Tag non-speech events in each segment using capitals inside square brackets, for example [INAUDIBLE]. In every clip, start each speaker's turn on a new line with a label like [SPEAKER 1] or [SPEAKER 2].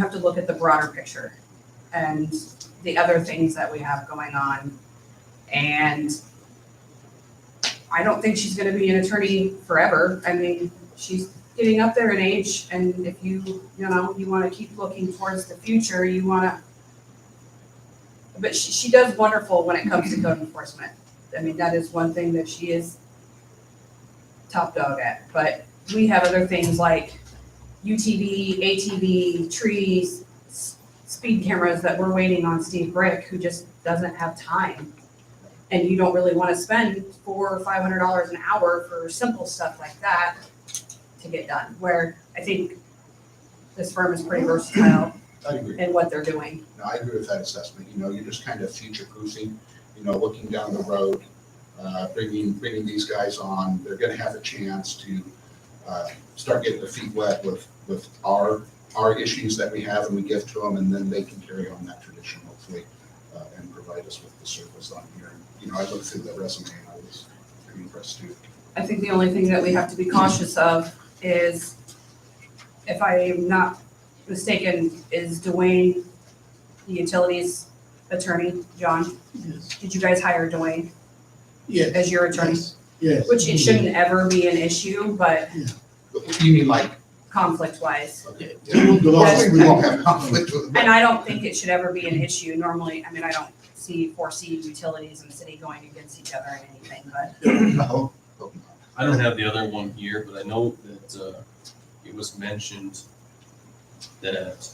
[SPEAKER 1] have to look at the broader picture and the other things that we have going on. And I don't think she's gonna be an attorney forever. I mean, she's getting up there in age and if you, you know, you wanna keep looking towards the future, you wanna. But she, she does wonderful when it comes to code enforcement. I mean, that is one thing that she is top dog at, but we have other things like UTV, ATV, trees, s- speed cameras that we're waiting on Steve Brick, who just doesn't have time. And you don't really wanna spend four or five hundred dollars an hour for simple stuff like that to get done, where I think this firm is pretty versatile
[SPEAKER 2] I agree.
[SPEAKER 1] in what they're doing.
[SPEAKER 2] No, I agree with that assessment. You know, you're just kind of future proofing, you know, looking down the road, uh, bringing, bringing these guys on. They're going to have a chance to uh, start getting their feet wet with, with our, our issues that we have and we give to them. And then they can carry on that tradition hopefully uh, and provide us with the service on here. And, You know, I looked through the resume and I was pretty impressed too.
[SPEAKER 1] I think the only thing that we have to be cautious of is, if I am not mistaken, is Dwayne, the utilities attorney, John?
[SPEAKER 3] Yes.
[SPEAKER 1] Did you guys hire Dwayne
[SPEAKER 3] Yes.
[SPEAKER 1] as your attorney?
[SPEAKER 3] Yes.
[SPEAKER 1] Which it shouldn't ever be an issue, but
[SPEAKER 2] But You mean like,
[SPEAKER 1] conflict wise.
[SPEAKER 2] okay, yeah,
[SPEAKER 3] The law,
[SPEAKER 2] we won't have conflict with [LAUGHS]
[SPEAKER 1] And I don't think it should ever be an issue. Normally, I mean, I don't see, foresee utilities and city going against each other in anything, but
[SPEAKER 2] No, hope not.
[SPEAKER 4] I don't have the other one here, but I know that uh, it was mentioned that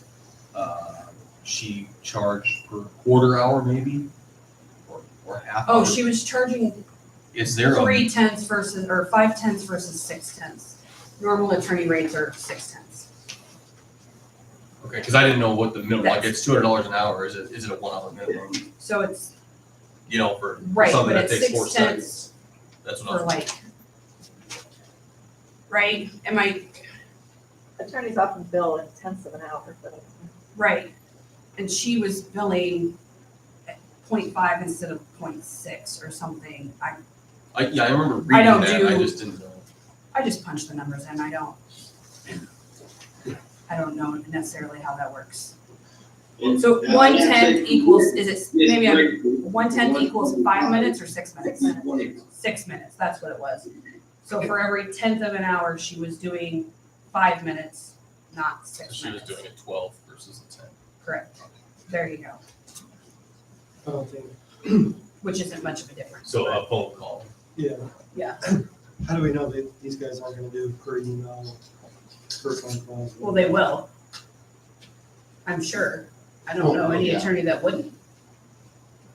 [SPEAKER 4] uh, she charged per quarter hour maybe, or, or half hour.
[SPEAKER 1] oh, she was charging
[SPEAKER 4] Is there a,
[SPEAKER 1] three tenths versus, or five tenths versus six tenths. Normal attorney rates are six tenths.
[SPEAKER 4] okay, because I didn't know what the minimum, like
[SPEAKER 1] That's-
[SPEAKER 4] it's two hundred dollars an hour, is it, is it a one hour minimum?
[SPEAKER 1] So it's
[SPEAKER 4] You know, for
[SPEAKER 1] Right,
[SPEAKER 4] something
[SPEAKER 1] but
[SPEAKER 4] that
[SPEAKER 1] it's
[SPEAKER 4] takes
[SPEAKER 1] six
[SPEAKER 4] four
[SPEAKER 1] cents
[SPEAKER 4] seconds. That's what I
[SPEAKER 1] for
[SPEAKER 4] was,
[SPEAKER 1] like, right? Am I
[SPEAKER 5] Attorneys often bill in tenths of an hour, but
[SPEAKER 1] right? And she was billing at 0.5 instead of 0.6 or something. I,
[SPEAKER 4] I, yeah, I remember reading
[SPEAKER 1] don't
[SPEAKER 4] that, I
[SPEAKER 1] do-
[SPEAKER 4] just didn't know.
[SPEAKER 1] I just punch the numbers in. I don't, I don't know necessarily how that works. So one tenth equals, is it, maybe I'm, one tenth equals five minutes or six minutes? Six minutes, that's what it was. So for every tenth of an hour, she was doing five minutes, not six
[SPEAKER 4] She was
[SPEAKER 1] minutes.
[SPEAKER 4] doing a twelve versus a ten.
[SPEAKER 1] Correct. There you go,
[SPEAKER 3] I don't think,
[SPEAKER 1] which isn't much of a difference.
[SPEAKER 4] So a phone call.
[SPEAKER 3] yeah.
[SPEAKER 1] Yeah.
[SPEAKER 3] [CLEARS THROAT] How do we know that these guys aren't gonna do per email, per phone call?
[SPEAKER 1] Well, they will. I'm sure. I don't know any
[SPEAKER 2] Yeah.
[SPEAKER 1] attorney that wouldn't.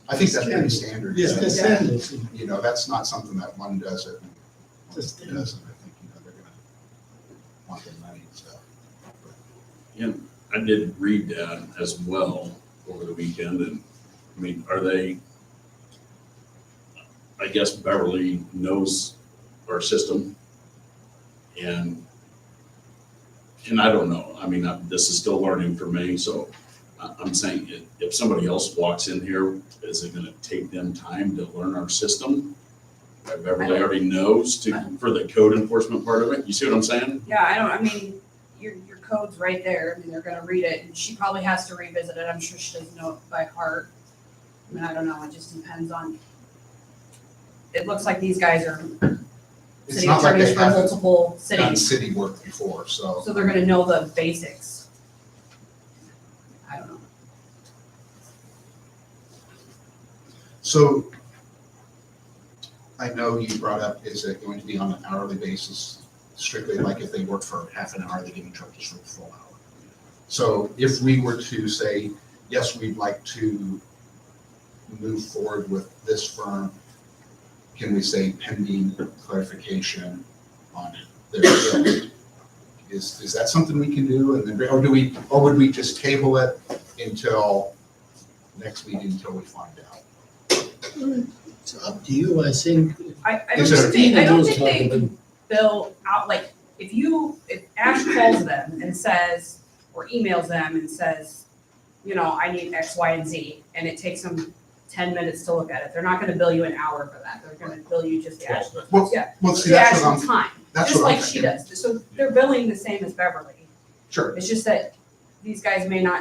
[SPEAKER 2] I think that's pretty standard.
[SPEAKER 3] Yes,
[SPEAKER 2] So-
[SPEAKER 3] they send it,
[SPEAKER 2] you know, that's not something that one does it. and one
[SPEAKER 3] Just-
[SPEAKER 2] Doesn't, I think, you know, they're gonna want their money, so.
[SPEAKER 6] I did read that as well over the weekend, and, I mean, are they, I guess Beverly knows our system, and, and I don't know, I mean, I- this is still learning for me, so I- I'm saying, if, if somebody else walks in here, is it gonna take them time to learn our system? That Beverly already knows to, for the code enforcement part of it, you see what I'm saying?
[SPEAKER 1] Yeah, I don't, I mean, your, your code's right there. I mean, they're gonna read it and she probably has to revisit it. I'm sure she doesn't know it by heart. I mean, I don't know. It just depends on. It looks like these guys are
[SPEAKER 2] It's
[SPEAKER 1] city
[SPEAKER 2] not like
[SPEAKER 1] attorneys
[SPEAKER 2] they
[SPEAKER 1] from
[SPEAKER 2] haven't
[SPEAKER 1] multiple
[SPEAKER 2] done
[SPEAKER 1] cities,
[SPEAKER 2] city work before, so.
[SPEAKER 1] so they're gonna know the basics. I don't know.
[SPEAKER 2] So I know you brought up, is it going to be on an hourly basis strictly like if they work for half an hour, they're getting charged for a full hour? So if we were to say, yes, we'd like to move forward with this firm, can we say pending clarification on their bill? Is, is that something we can do? And then, or do we, or would we just table it until next meeting, until we find out?
[SPEAKER 7] It's up to you, I think.
[SPEAKER 1] I, I don't
[SPEAKER 2] Is there-
[SPEAKER 1] think they, I don't
[SPEAKER 7] Christina's
[SPEAKER 1] think they
[SPEAKER 7] talking.
[SPEAKER 1] bill out, like, if you, if Ash calls them and says, or emails them and says, you know, I need X, Y, and Z, and it takes them ten minutes to look at it, they're not gonna bill you an hour for that, they're gonna bill you just the
[SPEAKER 4] Twelve
[SPEAKER 1] actual,
[SPEAKER 4] minutes.
[SPEAKER 2] Well,
[SPEAKER 1] Yeah.
[SPEAKER 2] well, see,
[SPEAKER 1] the
[SPEAKER 2] that's
[SPEAKER 1] actual
[SPEAKER 2] what I'm,
[SPEAKER 1] time,
[SPEAKER 2] that's
[SPEAKER 1] just
[SPEAKER 2] what I'm
[SPEAKER 1] like she
[SPEAKER 2] thinking.
[SPEAKER 1] does, so they're billing the same as Beverly.
[SPEAKER 2] Sure.
[SPEAKER 1] It's just that these guys may not